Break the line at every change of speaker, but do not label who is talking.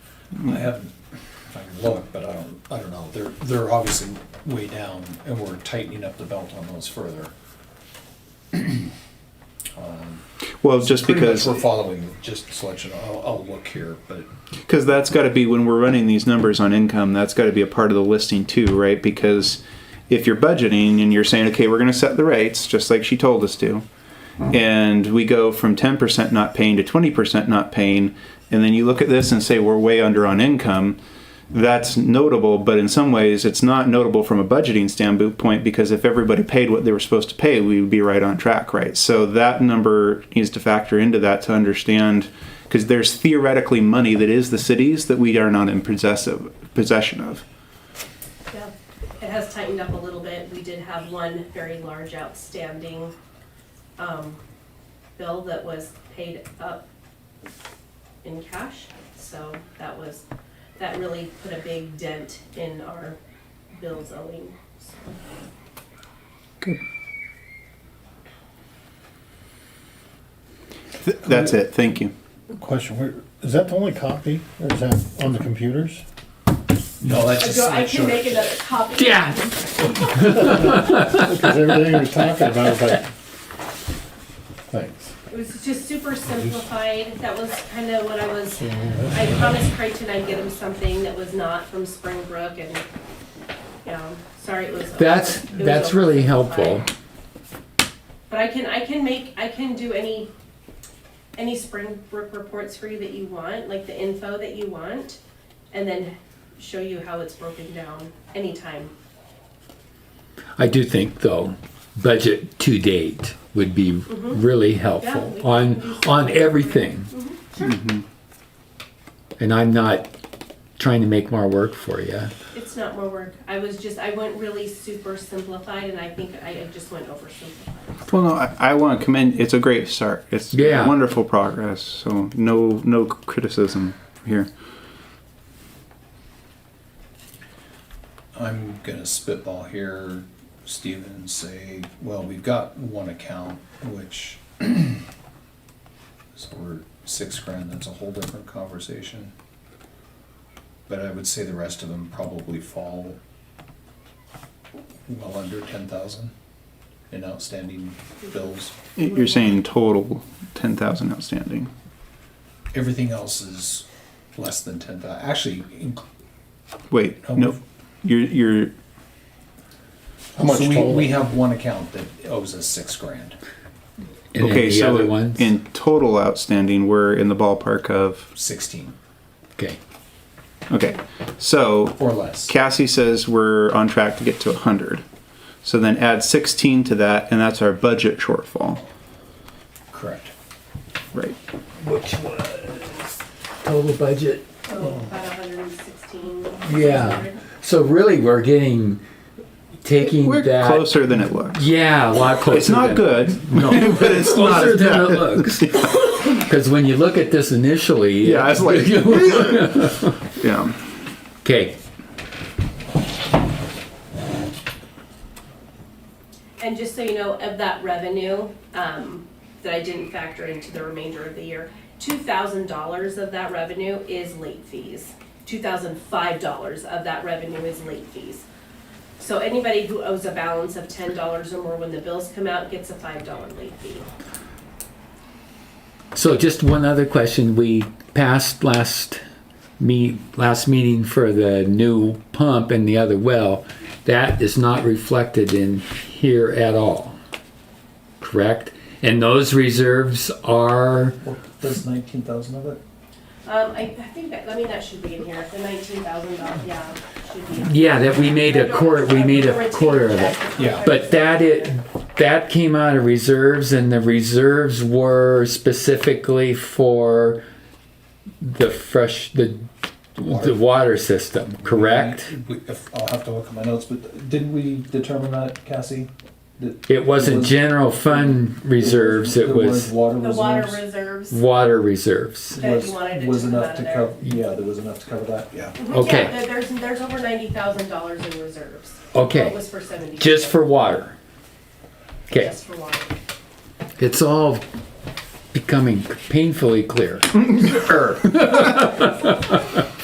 I haven't, if I can look, but I don't, I don't know, they're, they're obviously way down, and we're tightening up the belt on those further.
Well, just
Pretty much
because
We're following just selection, I'll, I'll look here, but
because that's got to be when we're running these numbers on income that's got to be a part of the listing too right because if you're budgeting and you're saying okay we're going to set the rates just like she told us to and we go from 10% not paying to 20% not paying and then you look at this and say we're way under on income that's notable but in some ways it's not notable from a budgeting standpoint because if everybody paid what they were supposed to pay we would be right on track right so that number needs to factor into that to understand because there's theoretically money that is the cities that we are not in possess of, possession of
Yeah, it has tightened up a little bit. We did have one very large outstanding um, bill that was paid up in cash. So that was, that really put a big dent in our bills owing. So
Th- that's it thank you
Question, where, is that the only copy, or is that on the computers?
no, that's just.
I can
sure.
make another copy.
Yeah.
Because everything we're talking about, but, thanks.
It was just super simplified. That was kind of what I was, I promised Creighton I'd get him something that was not from Springbrook and, yeah, sorry it was. over-
That's,
it was
that's really helpful.
oversimplified. But I can, I can make, I can do any, any Springbrook reports for you that you want, like the info that you want, and then show you how it's broken down anytime.
I do think though, budget to date would be really
Mm-hmm. Yeah, we
helpful
can
on,
do Mm-hmm.
on everything. And I'm not trying to make more work for you.
It's not more work. I was just, I went really super simplified and I think I I just went oversimplified.
well no i, I want to commend it's a great start it's
Yeah.
wonderful progress so no no criticism here
I'm gonna spitball here, Steven, and say, well, we've got one account, which, so we're six grand, that's a whole different conversation. But I would say the rest of them probably fall well under ten thousand in outstanding bills.
you're saying total 10000 outstanding
Everything else is less than ten thousand. actually, inc-
wait
Oh.
no you're you're
How much
so we,
total?
we have one account that owes us six grand.
And then
okay
the
so
other ones,
in total outstanding we're in the ballpark of
Sixteen
okay.
okay so
or less.
Cassie says we're on track to get to 100. So then add 16 to that, and that's our budget shortfall.
Correct.
Right.
Which was total budget?
So about hundred and sixteen.
Yeah. So really, we're getting, taking
We're
that.
closer than it looks.
Yeah, a lot closer.
It's not
than-
good,
No.
but it's not
closer
as
than
bad.
it looks. Because when you look at this initially,
Yeah, it's like- Yeah.
okay,
And just so you know, of that revenue, um, that I didn't factor into the remainder of the year, two thousand dollars of that revenue is late fees. Two thousand five dollars of that revenue is late fees. So anybody who owes a balance of ten dollars or more when the bills come out gets a five dollar late fee.
so just one other question. We passed last meet last meeting for the new pump and the other well. That is not reflected in here at all. Correct. And those reserves are
Does nineteen thousand of it?
Um, I, I think that, I mean, that should be in here, the nineteen thousand dollars, yeah, should be.
yeah that we made a quarter we made a quarter of it.
Yeah.
But that it that came out of reserves, and the reserves were specifically for the fresh the the water system, correct?
We- if- I'll have to look at my notes, but didn't we determine that, Cassie? That
It wasn't
was-
general fund reserves; it
there
was
Water
The water
reserves.
reserves.
water reserves.
that you
was-
wanted it
Was
to come
enough
out
to
of there.
cover, yeah, there was enough to cover that, yeah.
Okay.
Yeah, there- there's, there's over ninety thousand dollars in reserves. That
Okay,
was for seventy.
just for water. Okay,
Just for water.
it's all becoming painfully clear. Er.